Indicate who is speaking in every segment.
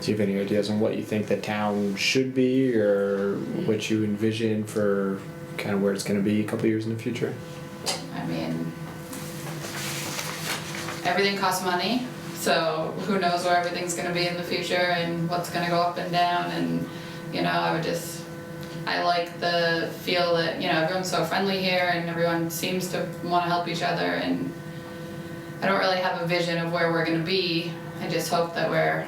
Speaker 1: Do you have any ideas on what you think the town should be, or what you envision for kind of where it's going to be a couple years in the future?
Speaker 2: I mean, everything costs money, so who knows where everything's gonna be in the future and what's gonna go up and down and, you know, I would just, I like the feel that, you know, everyone's so friendly here and everyone seems to wanna help each other and I don't really have a vision of where we're gonna be. I just hope that we're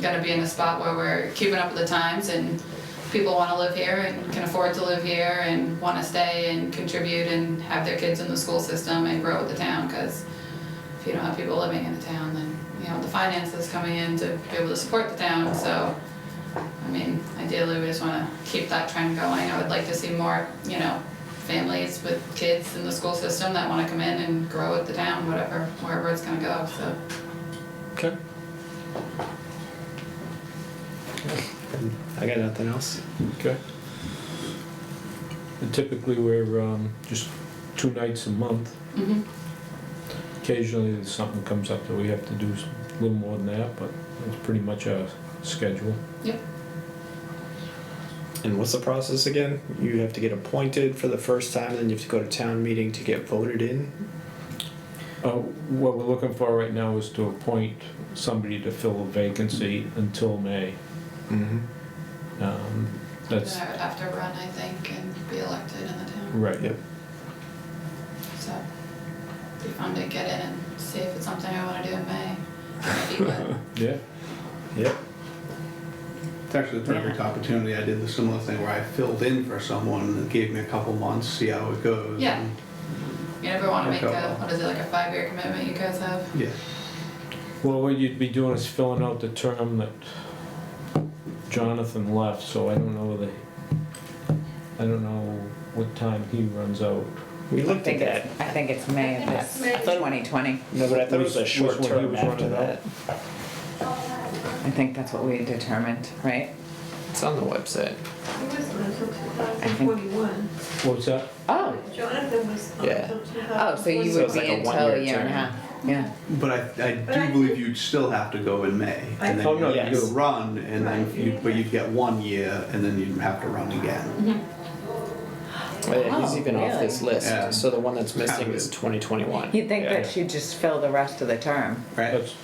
Speaker 2: gonna be in a spot where we're keeping up with the times and people wanna live here and can afford to live here and wanna stay and contribute and have their kids in the school system and grow with the town, cause if you don't have people living in the town, then, you know, the finances coming in to be able to support the town, so I mean, ideally, we just wanna keep that trend going. I would like to see more, you know, families with kids in the school system that wanna come in and grow with the town, whatever, wherever it's gonna go, so.
Speaker 1: Okay. I got nothing else.
Speaker 3: Okay. And typically, we're um, just two nights a month.
Speaker 2: Mm-hmm.
Speaker 3: Occasionally, there's something comes up that we have to do s- a little more than that, but it's pretty much our schedule.
Speaker 1: And what's the process again? You have to get appointed for the first time, then you have to go to town meeting to get voted in.
Speaker 3: Uh, What we're looking for right now is to appoint somebody to fill a vacancy until May.
Speaker 1: Mm-hmm.
Speaker 3: Um,
Speaker 2: Then
Speaker 3: That's,
Speaker 2: I would have to run, I think, and be elected in the town,
Speaker 3: right.
Speaker 1: Yep.
Speaker 2: so. Be fun to get in and see if it's something I wanna do in May. Maybe, but-
Speaker 3: Yeah,
Speaker 1: Yep.
Speaker 4: It's actually the perfect opportunity. I did the similar thing where I filled in for someone and it gave me a couple months, see how it goes.
Speaker 2: Yeah. You never wanna make
Speaker 4: Okay.
Speaker 2: a, what is it, like a five-year commitment you guys have?
Speaker 4: Yeah.
Speaker 3: well, what you'd be doing is filling out the term that Jonathan left, so I don't know whether, I don't know what time he runs out.
Speaker 1: We
Speaker 5: I
Speaker 1: looked at
Speaker 5: think
Speaker 1: that.
Speaker 5: it's, I think it's May of this,
Speaker 6: May.
Speaker 5: 2020.
Speaker 1: No, but I thought it was a
Speaker 3: Which-
Speaker 1: short
Speaker 3: which one he
Speaker 1: term
Speaker 3: was
Speaker 1: after
Speaker 3: running
Speaker 1: that.
Speaker 5: I think that's what we had determined, right?
Speaker 1: It's on the website.
Speaker 6: He was until 2041.
Speaker 3: What's that?
Speaker 5: Oh,
Speaker 6: Jonathan was um,
Speaker 1: Yeah.
Speaker 6: until 2041.
Speaker 5: oh, so you
Speaker 1: So
Speaker 5: would
Speaker 1: it's like
Speaker 5: be
Speaker 1: a
Speaker 5: until
Speaker 1: one-year
Speaker 5: a year and
Speaker 1: term.
Speaker 5: a half, yeah.
Speaker 4: But I, I
Speaker 6: But I
Speaker 4: do believe you'd still have to go in May. And then
Speaker 3: Oh, no,
Speaker 4: you'd-
Speaker 1: yes.
Speaker 4: you'd run and then
Speaker 6: Right.
Speaker 4: you, but you'd get one year and then you'd have to run again.
Speaker 1: yeah, he's
Speaker 5: Wow,
Speaker 1: even off
Speaker 5: really?
Speaker 1: this list.
Speaker 4: Yeah.
Speaker 1: So the one that's missing
Speaker 4: Kind of.
Speaker 1: is 2021.
Speaker 5: You'd think
Speaker 3: Yeah.
Speaker 5: that she'd just fill the rest of the term.
Speaker 4: Right?
Speaker 3: That's,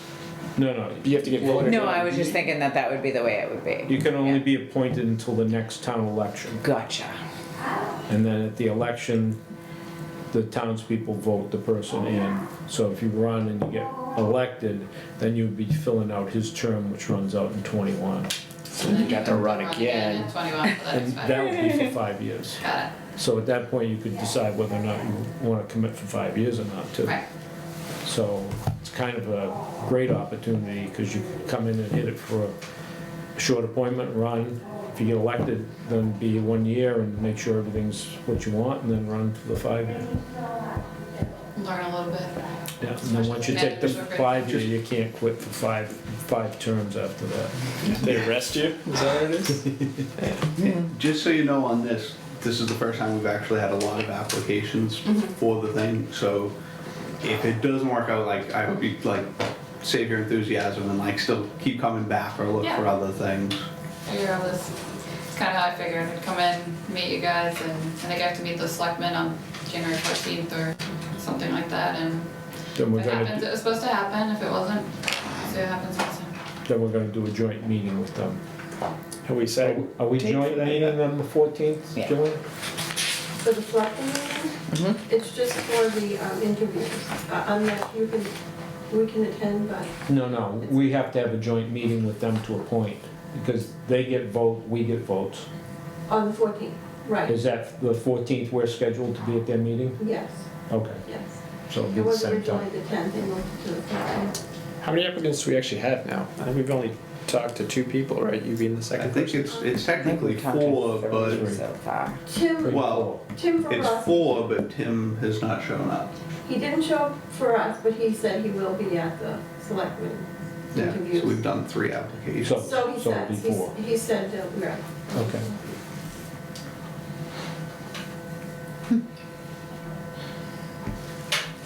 Speaker 3: no, no,
Speaker 1: You have to get voted
Speaker 5: No,
Speaker 1: in.
Speaker 5: I was just thinking that that would be the way it would be.
Speaker 3: you can only
Speaker 5: Yeah.
Speaker 3: be appointed until the next town election.
Speaker 5: Gotcha.
Speaker 3: And then at the election, the townspeople vote the person in. So if you run and you get elected, then you'd be filling out his term, which runs out in twenty-one.
Speaker 1: So you got to run
Speaker 2: in
Speaker 1: again.
Speaker 2: 21 for the
Speaker 3: And
Speaker 2: next
Speaker 3: that
Speaker 2: five.
Speaker 3: would be for five years.
Speaker 2: Got
Speaker 3: So at that point, you could decide whether or not you want to commit for five years or not
Speaker 2: it,
Speaker 3: too.
Speaker 2: right.
Speaker 3: So it's kind of a great opportunity because you can come in and hit it for a short appointment run. If you get elected, then be one year and make sure everything's what you want and then run for the five year.
Speaker 2: Learn a little bit.
Speaker 3: Yeah, and then once you take the five year, you can't quit for five, five terms after that.
Speaker 1: They arrest you. Is that what it is?
Speaker 4: Just so you know on this, this is the first time we've actually had a lot of applications
Speaker 6: Mm-hmm.
Speaker 4: for the thing, so if it doesn't work out, like, I hope you, like, save your enthusiasm and like still keep coming back or look
Speaker 2: Yeah.
Speaker 4: for other things.
Speaker 2: Figure out this, it's kind of how I figured, I'd come in, meet you guys, and I think I have to meet the selectmen on January fourteenth or something like that, and
Speaker 3: Then we're
Speaker 2: if it happens, it
Speaker 3: gonna,
Speaker 2: was supposed to happen, if it wasn't, see what happens next time.
Speaker 3: then we're gonna do a joint meeting with them.
Speaker 1: Have we
Speaker 3: Are
Speaker 1: said
Speaker 3: we- Are we
Speaker 1: Date for
Speaker 3: joint
Speaker 1: that
Speaker 3: meeting
Speaker 1: yet?
Speaker 3: on the fourteenth,
Speaker 5: Yeah.
Speaker 3: Joanne?
Speaker 6: For the selectmen meeting?
Speaker 5: Mm-hmm.
Speaker 6: It's just for the um, interviews. Uh, I'm not, you can, we can attend, but
Speaker 3: No, no, we have to have a joint meeting with them to appoint because they get vote, we get votes.
Speaker 6: on the 14th, right?
Speaker 3: Is that the fourteenth we're scheduled to be at their meeting?
Speaker 6: Yes,
Speaker 3: Okay,
Speaker 6: yes.
Speaker 3: so it'll be
Speaker 6: It
Speaker 3: the
Speaker 6: was
Speaker 3: same
Speaker 6: originally
Speaker 3: time.
Speaker 6: the 10th, they moved it to the 14th.
Speaker 1: how many applicants do we actually have now? I think we've only talked to two people, right? You being the
Speaker 4: I
Speaker 1: second.
Speaker 4: think it's, it's
Speaker 5: I think
Speaker 4: technically
Speaker 5: we've talked to
Speaker 4: four,
Speaker 5: three
Speaker 4: but
Speaker 5: So far.
Speaker 6: Tim,
Speaker 3: Pretty
Speaker 4: Well-
Speaker 6: Tim
Speaker 4: it's
Speaker 6: Verrus,
Speaker 4: four, but Tim has not shown up.
Speaker 6: he didn't show up for us, but he said he will be at the selectmen
Speaker 4: Yeah, so we've
Speaker 6: interviews.
Speaker 4: done three
Speaker 3: So-
Speaker 4: applications.
Speaker 6: So he
Speaker 3: so it'll be
Speaker 6: says, he's-
Speaker 3: four.
Speaker 6: he said, uh, right.
Speaker 3: cool. Okay,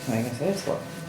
Speaker 5: So I guess it is what,